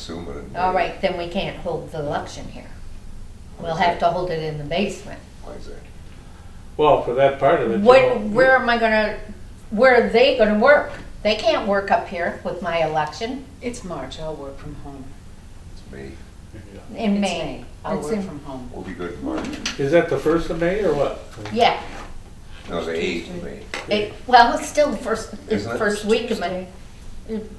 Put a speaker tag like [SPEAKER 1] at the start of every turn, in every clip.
[SPEAKER 1] Assuming.
[SPEAKER 2] All right, then we can't hold the election here. We'll have to hold it in the basement.
[SPEAKER 1] Why is that?
[SPEAKER 3] Well, for that part of it. you
[SPEAKER 2] What,
[SPEAKER 3] know,
[SPEAKER 2] where am I gonna, where are they gonna work? They can't work up here with my election
[SPEAKER 4] It's March, I'll work from home.
[SPEAKER 1] It's May.
[SPEAKER 2] in
[SPEAKER 4] It's
[SPEAKER 2] May.
[SPEAKER 4] I'll
[SPEAKER 2] It's
[SPEAKER 4] work
[SPEAKER 2] in-
[SPEAKER 4] from home.
[SPEAKER 1] We'll be good in March.
[SPEAKER 3] Is that the first of May or what?
[SPEAKER 2] Yeah,
[SPEAKER 1] No, the eighth of May,
[SPEAKER 2] it, well, it's still the first, it's
[SPEAKER 1] Isn't it?
[SPEAKER 2] first week of May.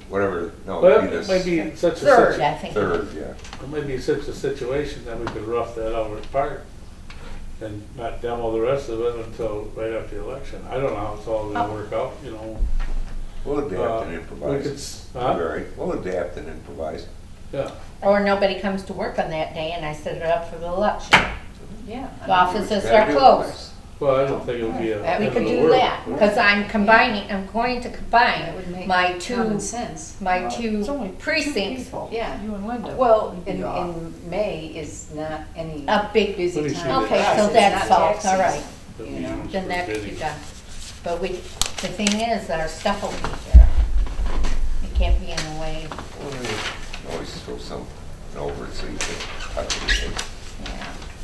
[SPEAKER 1] whatever, no,
[SPEAKER 3] Well,
[SPEAKER 1] it'll be
[SPEAKER 3] it might
[SPEAKER 1] this
[SPEAKER 3] be such a.
[SPEAKER 2] Third,
[SPEAKER 3] situ-
[SPEAKER 2] I think.
[SPEAKER 1] third, yeah.
[SPEAKER 3] It might be such a situation that we could rough that out apart and not demo the rest of it until right after the election. I don't know how it's all
[SPEAKER 2] Oh.
[SPEAKER 3] gonna work out, you know.
[SPEAKER 1] We'll
[SPEAKER 3] Uh,
[SPEAKER 1] adapt and
[SPEAKER 3] we could
[SPEAKER 1] improvise.
[SPEAKER 3] s- huh?
[SPEAKER 1] All right, we'll adapt and improvise.
[SPEAKER 3] Yeah,
[SPEAKER 2] Or nobody comes to work on that day and I set it up for the election.
[SPEAKER 4] Yeah.
[SPEAKER 2] The offices
[SPEAKER 1] You gotta
[SPEAKER 2] are
[SPEAKER 1] do it.
[SPEAKER 2] closed.
[SPEAKER 3] well, I don't think it'll be a.
[SPEAKER 4] That
[SPEAKER 2] We
[SPEAKER 3] end
[SPEAKER 2] could
[SPEAKER 3] of the
[SPEAKER 2] do
[SPEAKER 3] world.
[SPEAKER 2] that, because I'm combining, I'm going to
[SPEAKER 4] That
[SPEAKER 2] combine
[SPEAKER 4] would make
[SPEAKER 2] my
[SPEAKER 4] common
[SPEAKER 2] two,
[SPEAKER 4] sense.
[SPEAKER 2] my
[SPEAKER 5] It's only
[SPEAKER 2] two
[SPEAKER 5] two
[SPEAKER 2] precincts.
[SPEAKER 5] people.
[SPEAKER 4] Yeah.
[SPEAKER 5] You and Linda.
[SPEAKER 4] Well,
[SPEAKER 5] would be
[SPEAKER 4] in,
[SPEAKER 5] off.
[SPEAKER 4] in May is not any
[SPEAKER 2] A big
[SPEAKER 3] Let
[SPEAKER 4] busy
[SPEAKER 3] me see
[SPEAKER 4] time.
[SPEAKER 3] that.
[SPEAKER 4] for
[SPEAKER 2] Okay, so
[SPEAKER 4] us. It's
[SPEAKER 2] that's
[SPEAKER 4] not
[SPEAKER 2] solved, all
[SPEAKER 4] taxes.
[SPEAKER 2] right.
[SPEAKER 3] The
[SPEAKER 4] you
[SPEAKER 3] meetings
[SPEAKER 4] know,
[SPEAKER 2] Then
[SPEAKER 3] were
[SPEAKER 2] that could be
[SPEAKER 3] busy.
[SPEAKER 2] done. But we, the thing is, our stuff will be here. It can't be in the way,
[SPEAKER 1] Well, you Always throw some, an over it so you can touch anything.
[SPEAKER 2] yeah.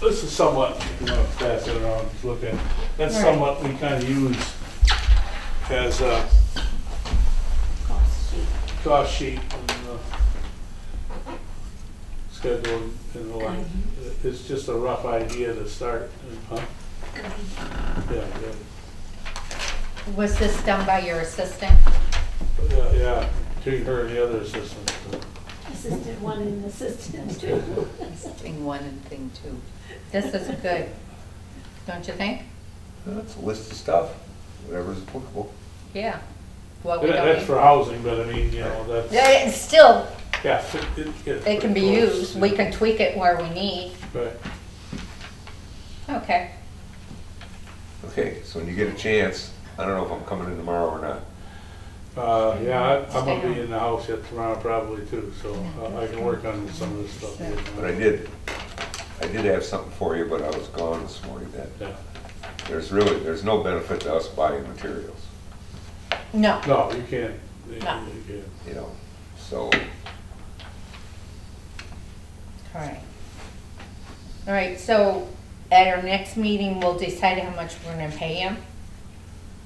[SPEAKER 3] This is somewhat, if you wanna pass it around, just look at, that's
[SPEAKER 2] Right.
[SPEAKER 3] somewhat we kinda use as a cost sheet and the schedule and the like. Uh, It's just a rough idea to start, uh, huh?
[SPEAKER 2] Mm-hmm.
[SPEAKER 3] Yeah, yeah,
[SPEAKER 2] Was this done by your assistant?
[SPEAKER 3] yeah, yeah, between her and the other assistant.
[SPEAKER 6] Assistant one and assistant two.
[SPEAKER 4] Thing one and thing two.
[SPEAKER 2] This is good, don't you think?
[SPEAKER 1] That's a list of stuff, whatever's applicable.
[SPEAKER 2] Yeah. What we don't
[SPEAKER 3] That's
[SPEAKER 2] need-
[SPEAKER 3] for housing, but I mean, you know,
[SPEAKER 2] Yeah,
[SPEAKER 3] that's,
[SPEAKER 2] It's still,
[SPEAKER 3] yeah. it- it gets
[SPEAKER 2] it can be
[SPEAKER 3] pretty close,
[SPEAKER 2] used, we
[SPEAKER 3] yeah.
[SPEAKER 2] can tweak it where we need.
[SPEAKER 3] Right.
[SPEAKER 2] Okay,
[SPEAKER 1] Okay, so when you get a chance, I don't know if I'm coming in tomorrow or not.
[SPEAKER 3] Uh, yeah, I- I'm
[SPEAKER 2] Stay
[SPEAKER 3] gonna
[SPEAKER 2] home.
[SPEAKER 3] be in the house yet tomorrow probably too, so uh, I can work on some of this stuff. here.
[SPEAKER 1] But I did, I did have something for you, but I was gone this morning then.
[SPEAKER 3] Yeah.
[SPEAKER 1] There's really, there's no benefit to us buying materials,
[SPEAKER 2] no,
[SPEAKER 3] No, you can't, you
[SPEAKER 2] No.
[SPEAKER 3] can't.
[SPEAKER 1] you know, so
[SPEAKER 2] all right. All right, so at our next meeting, we'll decide how much we're gonna pay him,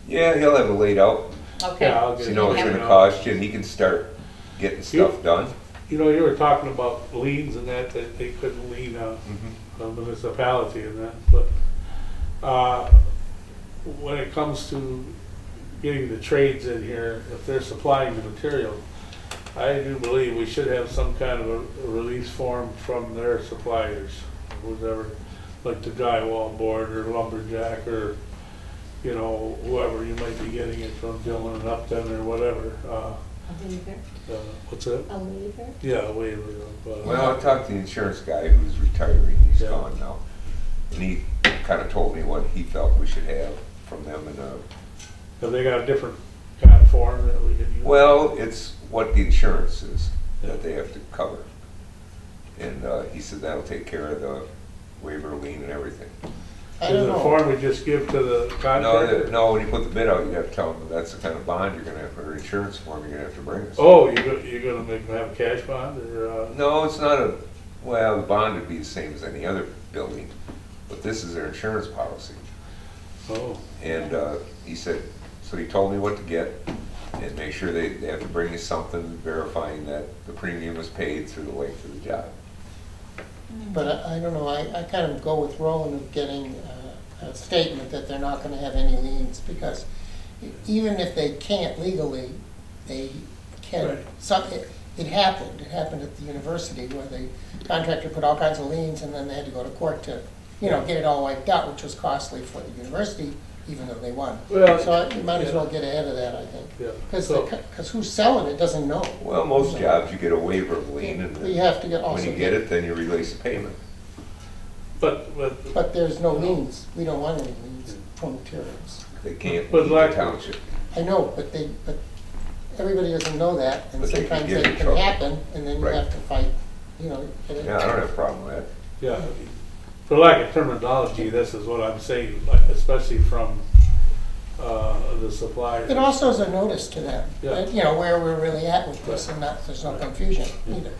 [SPEAKER 1] Yeah, he'll have it laid out,
[SPEAKER 2] okay?
[SPEAKER 3] Oh, Yeah,
[SPEAKER 1] so
[SPEAKER 3] I'll get
[SPEAKER 1] you
[SPEAKER 3] it.
[SPEAKER 1] know what it's gonna cost you, and he can start getting stuff done.
[SPEAKER 3] You know, you were talking about liens and that, that they couldn't lien on a municipality and that, but, uh, when it comes to getting the trades in here, if they're supplying the material, I do believe we should have some kind of a release form from their suppliers, whoever, like the drywall board or lumberjack or, you know, whoever you might be getting it from, Dillon and Upton or whatever, uh,
[SPEAKER 6] A waiver,
[SPEAKER 3] uh, what's it?
[SPEAKER 6] a waiver.
[SPEAKER 3] Yeah, waiver. of, uh,
[SPEAKER 1] Well, I talked to the insurance guy who's retiring, he's
[SPEAKER 3] Yeah.
[SPEAKER 1] gone now, and he kinda told me what he felt we should have from them and, uh,
[SPEAKER 3] Have they got a different kind of form that we can use?
[SPEAKER 1] Well, it's what the insurance is that they have to cover. And uh, he said that'll take care of the waiver lien and everything.
[SPEAKER 3] Is it a form we just give to the
[SPEAKER 1] No,
[SPEAKER 3] contractor?
[SPEAKER 1] the- no, when you put the bid out, you have to tell them that's the kind of bond you're gonna have, or insurance form you're gonna have to bring us.
[SPEAKER 3] Oh, you're gonna, you're gonna make them have a cash bond or, uh,
[SPEAKER 1] No, it's not a, well, the bond would be the same as any other building, but this is their insurance policy.
[SPEAKER 3] oh,
[SPEAKER 1] And uh, he said, so he told me what to get and make sure they, they have to bring you something verifying that the premium was paid through the length of the job.
[SPEAKER 7] But I, I don't know, I, I kind of go with Roland of getting uh, a statement that they're not gonna have any liens, because e- even if they can't legally, they
[SPEAKER 3] Right.
[SPEAKER 7] can, some, it, it happened, it happened at the university where the contractor put all kinds of liens, and then they had to go to court to, you know, get it all wiped out, which was costly for the university, even though they won.
[SPEAKER 3] Well,
[SPEAKER 7] So you might as well
[SPEAKER 3] yeah.
[SPEAKER 7] get ahead of that, I think,
[SPEAKER 3] yeah.
[SPEAKER 7] because,
[SPEAKER 3] So,
[SPEAKER 7] because who's selling it doesn't know.
[SPEAKER 1] Well, most jobs, you get a waiver of lien, and
[SPEAKER 7] We
[SPEAKER 1] then
[SPEAKER 7] have to get also.
[SPEAKER 1] when you get it, then you release the payment.
[SPEAKER 3] But, but,
[SPEAKER 7] But there's no liens, we don't want any liens for materials.
[SPEAKER 1] They can't
[SPEAKER 3] But
[SPEAKER 1] leave the
[SPEAKER 3] like-
[SPEAKER 1] township.
[SPEAKER 7] I know, but they, but everybody doesn't know that, and
[SPEAKER 1] But they can
[SPEAKER 7] sometimes
[SPEAKER 1] get
[SPEAKER 7] that
[SPEAKER 1] in
[SPEAKER 7] can
[SPEAKER 1] trouble.
[SPEAKER 7] happen, and then you
[SPEAKER 1] Right.
[SPEAKER 7] have to fight, you know. get it.
[SPEAKER 1] Yeah, I don't have a problem with that.
[SPEAKER 3] yeah, for lack of terminology, this is what I'm saying, like, especially from, uh, the suppliers.
[SPEAKER 7] It also is a notice to them,
[SPEAKER 3] Yeah.
[SPEAKER 7] that, you know, where we're really at with this,
[SPEAKER 3] Right.
[SPEAKER 7] and that, there's no
[SPEAKER 3] Right.
[SPEAKER 7] confusion either.